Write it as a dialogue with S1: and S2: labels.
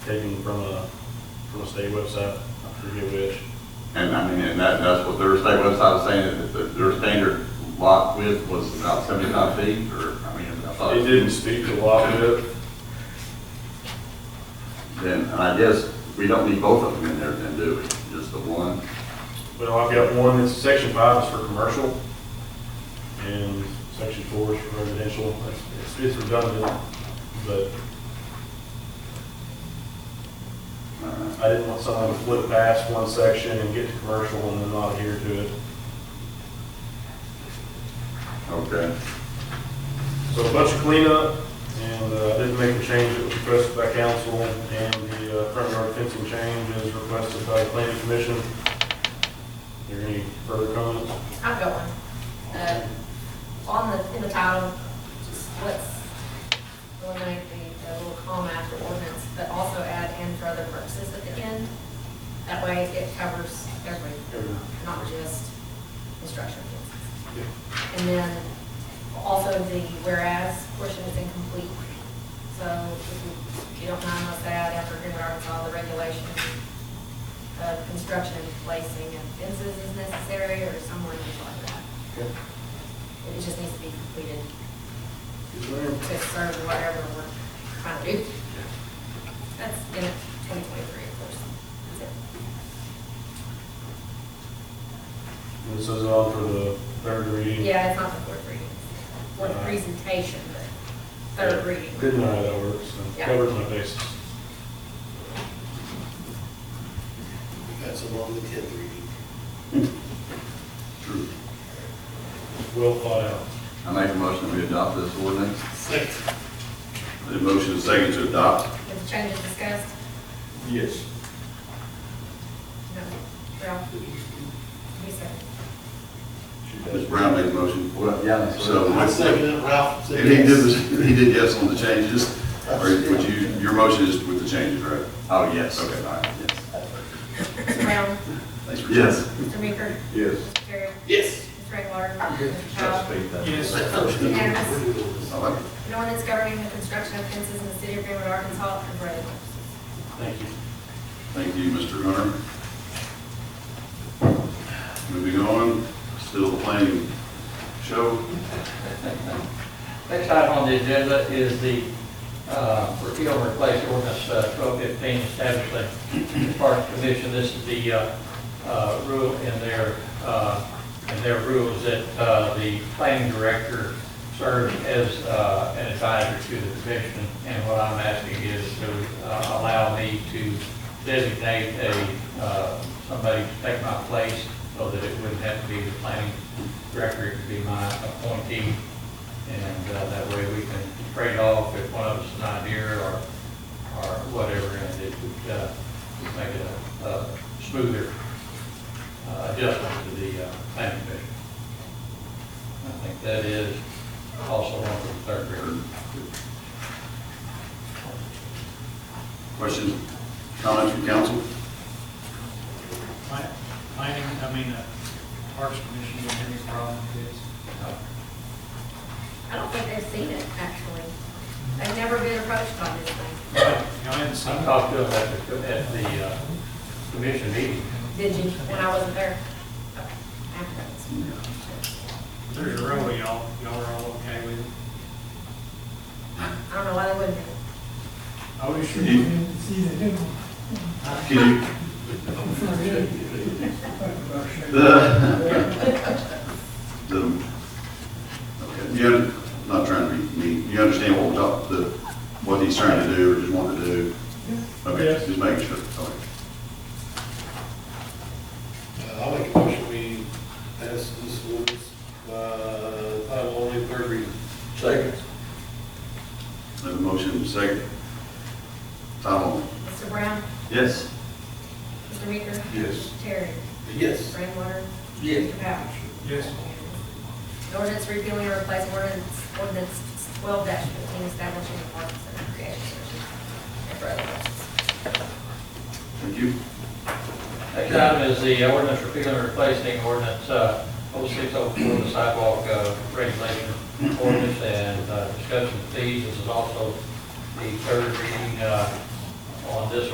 S1: taken from a, from a state website, I forget which.
S2: And I mean, and that, that's what their state website was saying, that the- their standard lot width was about seventy-five feet, or, I mean, I thought.
S1: It didn't speak to lot width,
S2: Then, and I guess we don't need both of them in there then, do we? Just the one?
S1: but I've got one, that's section five is for commercial, and section four is for residential, it's, it's redundant, but
S2: Uh,
S1: I didn't want someone to flip past one section and get to commercial and then not adhere to it.
S2: Okay,
S1: So a bunch of cleanup, and uh, I did make the change that was requested by council, and the uh, front yard fencing change is requested by the planning commission. Are there any further comments?
S3: I've got one. Uh, On the, in the title, just let's eliminate the, the little comma after ordinance, but also add and for other purposes at the end. That way it covers everything, not just construction. And then also the whereas portion is incomplete. So if you- if you don't mind us add after Greenwood, Arkansas, the regulations of construction and placing of fences is necessary or some language like that. It just needs to be completed to serve whatever we're trying to do. That's in twenty twenty-three, of course. That's it.
S1: And This is all for the third reading.
S3: Yeah, it's not the fourth reading. One presentation, but third reading.
S1: Good and all that works, so
S3: Yeah.
S1: covers my bases.
S4: That's along the tenth reading.
S2: true.
S1: Well thought out.
S2: I make a motion that we adopt this ordinance.
S4: Second.
S2: The motion is second to adopt.
S3: If the change is discussed,
S1: Yes.
S3: no, Ralph, you said.
S2: Ms. Brown made the motion. Well, yeah. that's
S4: I
S2: what-
S4: second it, Ralph.
S5: And he did, the- he did yes on the changes, or would you, your motion is with the changes, right?
S2: Oh, yes.
S5: Okay, all right.
S2: Yes.
S3: Mr. Brown,
S5: Thanks for.
S2: Yes.
S3: Mr. Meeker,
S2: Yes.
S3: Mr. Terry,
S4: Yes.
S3: Mr. Rainwater, Mr. Powell.
S1: Yes.
S3: Unanimous.
S2: I like it.
S3: An ordinance governing the construction of fences in the city of Greenwood, Arkansas, and for other purposes.
S1: Thank you.
S5: Thank you, Mr. Hunter. Moving on, still playing show.
S6: Next item on the agenda is the uh, repeal and replace ordinance uh, 1215 establishing the Parks Commission. This is the uh, uh, rule in their, uh, in their rules that uh, the planning director serves as uh, an advisor to the commission. And what I'm asking is to uh, allow me to designate a, uh, somebody to take my place so that it wouldn't have to be the planning director, it could be my appointee. And uh, that way we can trade off if one of us is not here or, or whatever, and it would uh, make it a a smoother uh, adjustment to the uh, planning commission. I think that is also one of the third reading.
S5: Questions, comments from council?
S7: Pla- Planning, I mean, uh, Parks Commission, you have any problem with this?
S3: I don't think they've seen it, actually. They've never been approached by this thing.
S7: Y'all haven't seen
S6: I
S7: it?
S6: talked to them at the, at the uh, commission meeting.
S3: Did you, when I wasn't there? Okay. After that.
S7: There's a row, y'all, y'all are all okay with it?
S3: I don't know why they wouldn't be.
S7: Oh, you sure?
S5: You- Can you, The, the, okay, you, un- I'm not trying to be mean, you understand what we're talking, the, what he's trying to do or just wanting to do? Okay, just making sure, okay.
S4: I'll make a motion, we pass this ordinance, uh, title only, third reading. Second.
S5: Have a motion second. Tom?
S3: Mr. Brown,
S5: Yes.
S3: Mr. Meeker,
S5: Yes.
S3: Terry,
S4: Yes.
S3: Rainwater. Yes. Mr. Powell.
S7: Yes.
S3: An ordinance repealing or replacing ordinance, ordinance twelve fifteen establishing the parks and recreation.
S5: Thank you.
S6: Next item is the ordinance repealing and replacing ordinance uh, 0604, the sidewalk uh, regulation ordinance and uh, discussion of fees. This is also the third reading uh, on this